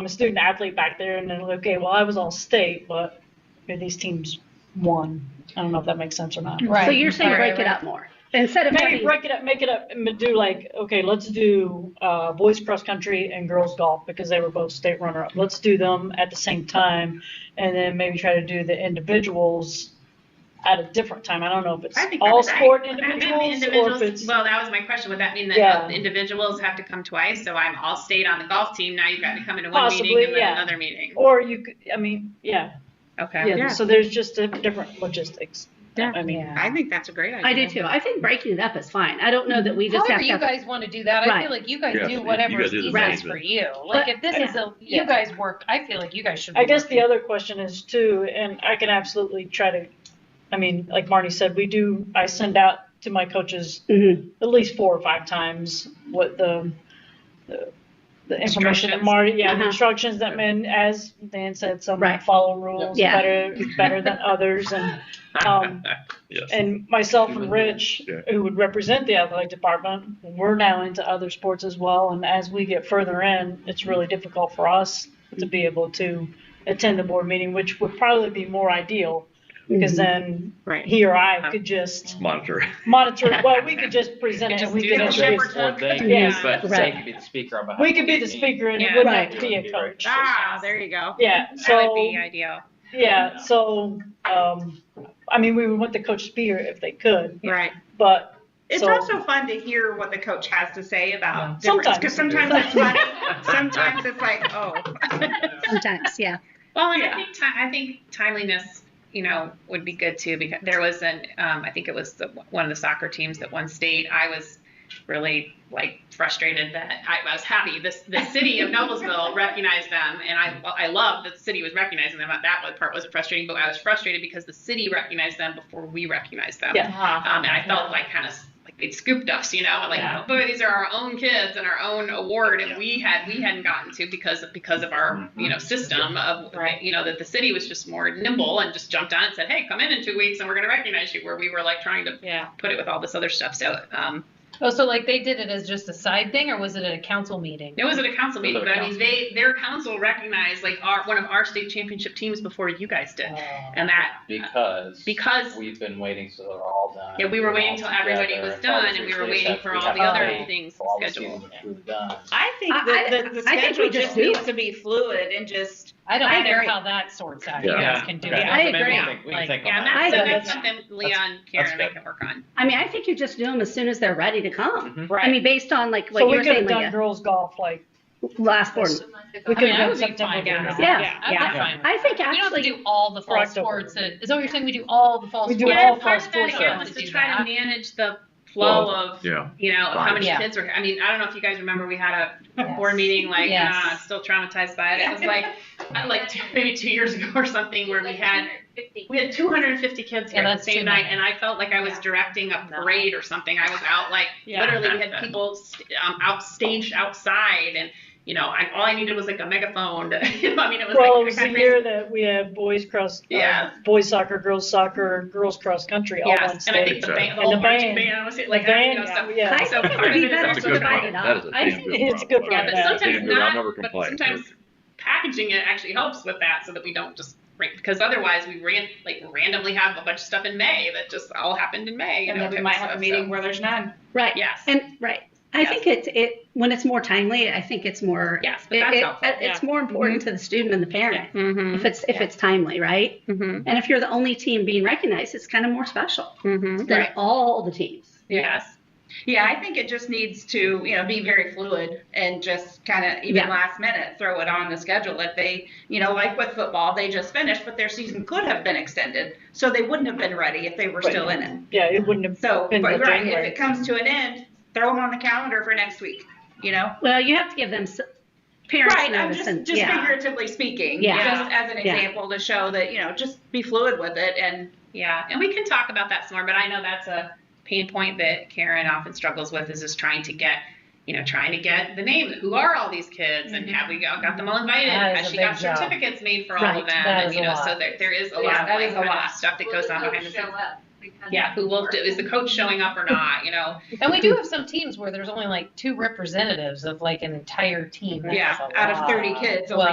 I'm a student athlete back there, and then okay, well, I was all state, but you know, these teams won. I don't know if that makes sense or Mm-hmm. not. Right. So you're saying Right, break it right. up more instead of Maybe having, break it up, make it up, and do like okay, let's do uh, boys cross country and girls golf because they were both state runner up. Let's do them at the same time, and then maybe try to do the individuals at a different time. I don't know if it's I think all that's right. sport I think individuals, or if individuals- it's Well, that was my question. Would that mean that Yeah. uh, individuals have to come twice? So I'm all state on the golf team. Now you've got to come into one Possibly, meeting and yeah. then another meeting. or you. could- I mean, yeah, Okay. yeah. So there's just a different logistics. Yeah. I mean, I think that's a great idea. I do too. I think breaking it up is fine. I don't know that we just However have you to. guys want to do that, I Right. feel like you guys Yeah, you do whatever gotta is do the easiest thing, for but- you. Like if this is a, Yeah. you guys work, I feel like you guys should. I be guess the working. other question is too, and I can absolutely try to, I mean, like Marty said, we do, I send out to my coaches Mhm. at least four or five times what the, the, the information that Instructions. Marty, yeah, the Uh-huh. instructions that, and as Dan said, some Right. follow rules Yeah. better, better than others and, um, Yes. and myself and Rich, Yeah. who would represent the athletic department, we're now into other sports as well. And as we get further in, it's really difficult for us to be able to attend the board meeting, which would probably be more ideal because Mm-hmm. then Right. he or I could just Monitor. monitor. Well, we could just present it. Just We do could the introduce. shepherd. One thing, Yeah. but Right. they could be the speaker on behalf. We could be the of team. speaker and it Yeah. wouldn't have to Right. be a coach. Ah, there you go. Yeah. That would So be ideal. yeah. So um, I mean, we would want the coach to be here if they could, Right. but It's So- also fun to hear what the coach has to say about Yeah. difference because sometimes it's funny. sometimes it's like, oh. Sometimes, yeah. Well, and Yeah. I think ti- I think timeliness, you know, would be good too because there was an um, I think it was the, one of the soccer teams that won state. I was really like frustrated that I, I was happy this the city of Noblesville recognized them, and I I loved that the city was recognizing them. That part wasn't frustrating, but I was frustrated because the city recognized them before we recognized them. Yeah. Uh-huh. Um, and I felt like kind of like they'd scooped us, you know, like Yeah. oh, boy, these are our own kids and our own award, and we had we hadn't gotten to because of because of our Mm-hmm. you know system of Right. you know that the city was just more nimble and just jumped on and said, hey, come in in two weeks and we're going to recognize you, where we were like trying to Yeah. put it with all this other stuff. So um, Oh, so like they did it as just a side thing, or was it at a council meeting? it was at a council meeting, at a but I mean they their council recognized like our one of our state championship teams before you guys did, Oh. and that Because. because We've been waiting till they're all done. yeah, we were They're waiting all till everybody together, was and all the done, and we were three waiting staff, for we all have the to other wait things for all the scheduled. seasons to be done. I think I- that I- the, the I think we schedule just just do needs it. to be fluid and just, I don't I care agree. how that sorts out. You Yeah. guys can do Okay. it. I Maybe we agree. can think- We can Like, think Yeah, and on that. that's, I so agree. that's something Leon, Karen, and I good. can work on. I mean, I think you just do them as soon as they're ready to come. Right. I mean, based on like what so you we were could saying, have done like girls golf like last board. we I could mean, I have done would be September. fine. Yeah. November. Yeah, I'm yeah. fine with I think it. You don't have to actually, do all the Or fall October. sports. Is that what you're saying? We do all the fall We do sports. all Yeah, part of full that again circles was to to do try that. to manage the flow of, Yeah. you know, of how many Yeah. kids were. I mean, I don't know if you guys remember, we had a Yes. board meeting like, Yes. uh, still traumatized by it. It was like, uh, like two, maybe two years ago or something where we had we had 250 kids Yeah, here at that's the too same night, many. and I felt like I was Yeah. directing a No. parade or something. I was out like Yeah. literally, we had people st- um, out staged outside, and you know, I, all I needed was like a megaphone. To, you know, I mean, it was Well, like it was the kinda year that we had boys cross, uh, Yeah. boys soccer, girls soccer, girls cross country all on Yes, and I stage. think the Exactly. band, the And whole the marching band. band, was it, The like, I you know, band, stuff. yeah. I So think it part would of be it is better That's a to also good divide it problem. That is a up. I damn think good it's a problem. good Yeah, problem. but sometimes Damn good, I'll never not, but complain. sometimes packaging it actually helps with that so that we don't just, ran- because otherwise we ran, like randomly have a bunch of stuff in May that just all happened in May. you and know, then we type might of have a stuff, meeting so- where there's none. right. Yes. And right. I Yes. think it's it when it's more timely. I think it's more. Yes, but It, that's it- uh, helpful. It's more important to the student and the parent Mm-hmm, if it's if Yeah. it's timely, right? mm-hmm, And if you're the only team being recognized, it's kind of more special mm-hmm. than Right, all the teams. yes. Yeah, I think it just needs to, you know, be very fluid and just kind of even Yeah. last minute throw it on the schedule if they, you know, like with football, they just finished, but their season could have been extended, so they wouldn't have been ready if they were Right. still in it. Yeah, it wouldn't have. So, In but the right, if January. it comes to an end, throw them on the calendar for next week. You know. Well, you have to give them s- parents Right, I'm notice just, and just yeah. figuratively speaking, Yeah. just as an Yeah. example to show that, you know, just be fluid with it and Yeah, and we can talk about that some more, but I know that's a pain point that Karen often struggles with is just trying to get, you know, trying to get the name. Who are all these kids? And have we got, got them all invited? Mm-hmm. That is Has a she big got job. certificates made for all Right, of them? that and, is you a know, lot. so there, there is a Yeah, lot of that like, is a kind of lot. stuff that goes on behind the scenes. up. Because Yeah, who will, is the coach showing up or not, you know? And we do have some teams where there's only like two representatives of like an entire team. That's Yeah, a out of lot. 30 kids, Well, only